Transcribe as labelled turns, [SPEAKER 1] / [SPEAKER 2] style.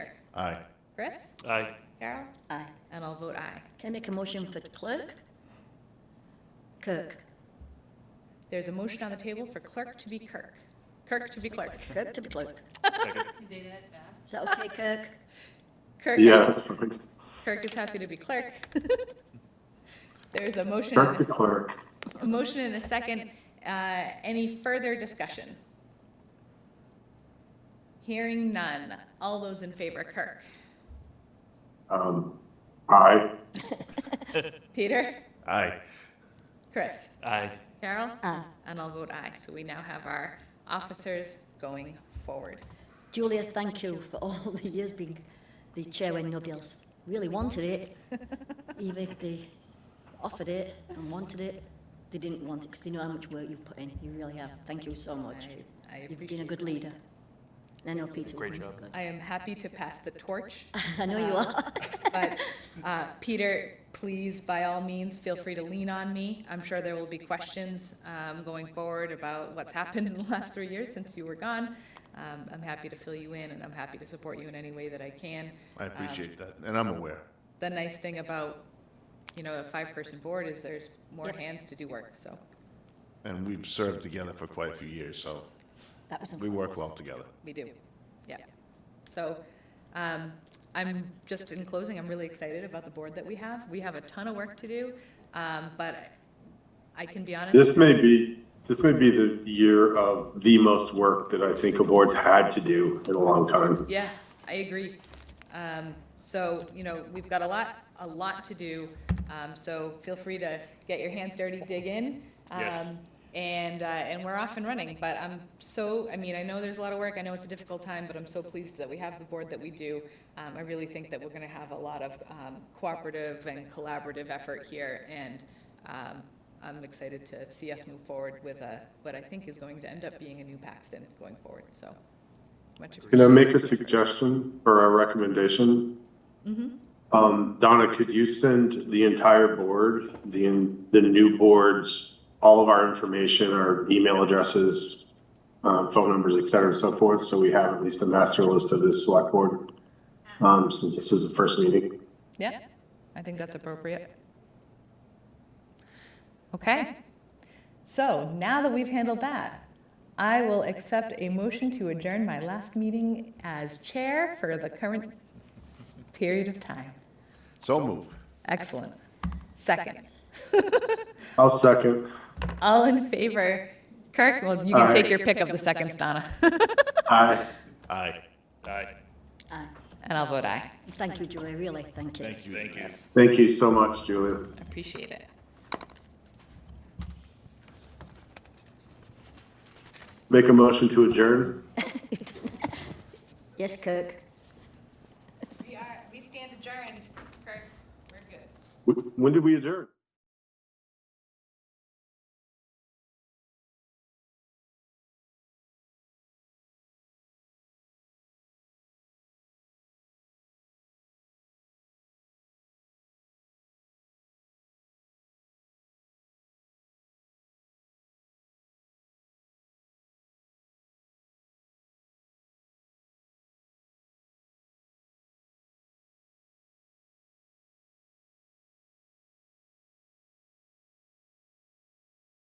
[SPEAKER 1] Aye.
[SPEAKER 2] Chris?
[SPEAKER 3] Aye.
[SPEAKER 2] Carol?
[SPEAKER 4] Aye.
[SPEAKER 2] And I'll vote aye.
[SPEAKER 4] Can I make a motion for clerk? Kirk.
[SPEAKER 2] There's a motion on the table for clerk to be Kirk. Kirk to be clerk.
[SPEAKER 4] Kirk to be clerk.
[SPEAKER 3] Second.
[SPEAKER 4] Is that okay, Kirk?
[SPEAKER 2] Kirk,
[SPEAKER 5] Yeah, that's fine.
[SPEAKER 2] Kirk is happy to be clerk. There's a motion, and
[SPEAKER 5] Kirk
[SPEAKER 2] a
[SPEAKER 5] the
[SPEAKER 2] s-
[SPEAKER 5] clerk.
[SPEAKER 2] a motion and a second. Uh, Any further discussion? Hearing none. All those in favor, Kirk?
[SPEAKER 5] Um, aye.
[SPEAKER 2] Peter?
[SPEAKER 1] Aye.
[SPEAKER 2] Chris?
[SPEAKER 3] Aye.
[SPEAKER 2] Carol?
[SPEAKER 4] Aye.
[SPEAKER 2] And I'll vote aye. So we now have our officers going forward.
[SPEAKER 4] Julia, thank you for all the years being the chair when nobody else really wanted it. Even if they offered it and wanted it, they didn't want it because they know how much work you've put in. You really have. Thank you so much.
[SPEAKER 2] I- I
[SPEAKER 4] You've been a
[SPEAKER 2] appreciate
[SPEAKER 4] good
[SPEAKER 2] that.
[SPEAKER 4] leader. And I know Peter. will
[SPEAKER 3] Great
[SPEAKER 4] be
[SPEAKER 3] job.
[SPEAKER 4] good.
[SPEAKER 2] I am happy to pass the torch,
[SPEAKER 4] I know you are.
[SPEAKER 2] but uh, Peter, please, by all means, feel free to lean on me. I'm sure there will be questions um, going forward about what's happened in the last three years since you were gone. Um, I'm happy to fill you in, and I'm happy to support you in any way that I can.
[SPEAKER 1] I appreciate that, and I'm aware.
[SPEAKER 2] The nice thing about, you know, a five-person board is there's more
[SPEAKER 4] Yep.
[SPEAKER 2] hands to do work, so.
[SPEAKER 1] And we've served together for quite a few years, so
[SPEAKER 4] That was
[SPEAKER 1] we work well together.
[SPEAKER 2] We do, yeah. So, um, I'm, just in closing, I'm really excited about the board that we have. We have a ton of work to do, um, but I can be honest.
[SPEAKER 5] This may be, this may be the year of the most work that I think a board's had to do in a long time.
[SPEAKER 2] Yeah, I agree. Um, so, you know, we've got a lot, a lot to do, um, so feel free to get your hands dirty, dig in.
[SPEAKER 3] Yes.
[SPEAKER 2] Um, And, uh, and we're off and running, but I'm so, I mean, I know there's a lot of work, I know it's a difficult time, but I'm so pleased that we have the board that we do. Um, I really think that we're gonna have a lot of, um, cooperative and collaborative effort here, and, um, I'm excited to see us move forward with a, what I think is going to end up being a new Paxton going forward, so. Much appreciated.
[SPEAKER 5] Can I make a suggestion or a recommendation? Um, Donna, could you send the entire board, the, the new boards, all of our information, our email addresses, um, phone numbers, et cetera and so forth, so we have at least a master list of this select board, um, since this is the first meeting?
[SPEAKER 2] Yeah, I think that's appropriate. Okay. So now that we've handled that, I will accept a motion to adjourn my last meeting as chair for the current period of time.
[SPEAKER 1] So move.
[SPEAKER 2] Excellent. Second.
[SPEAKER 5] I'll second.
[SPEAKER 2] All in favor? Kirk, well, you can take your pick of the seconds, Donna.
[SPEAKER 5] Aye.
[SPEAKER 1] Aye.
[SPEAKER 3] Aye.
[SPEAKER 4] Aye.
[SPEAKER 2] And I'll vote aye.
[SPEAKER 4] Thank you, Julia, really, thank you.
[SPEAKER 1] Thank you.
[SPEAKER 3] Thank you.
[SPEAKER 5] Thank you so much, Julia.
[SPEAKER 2] I Appreciate it.
[SPEAKER 5] Make a motion to adjourn.
[SPEAKER 4] Yes, Kirk.
[SPEAKER 2] We are, we stand adjourned. Kirk, we're good.
[SPEAKER 5] Wh- When did we adjourn?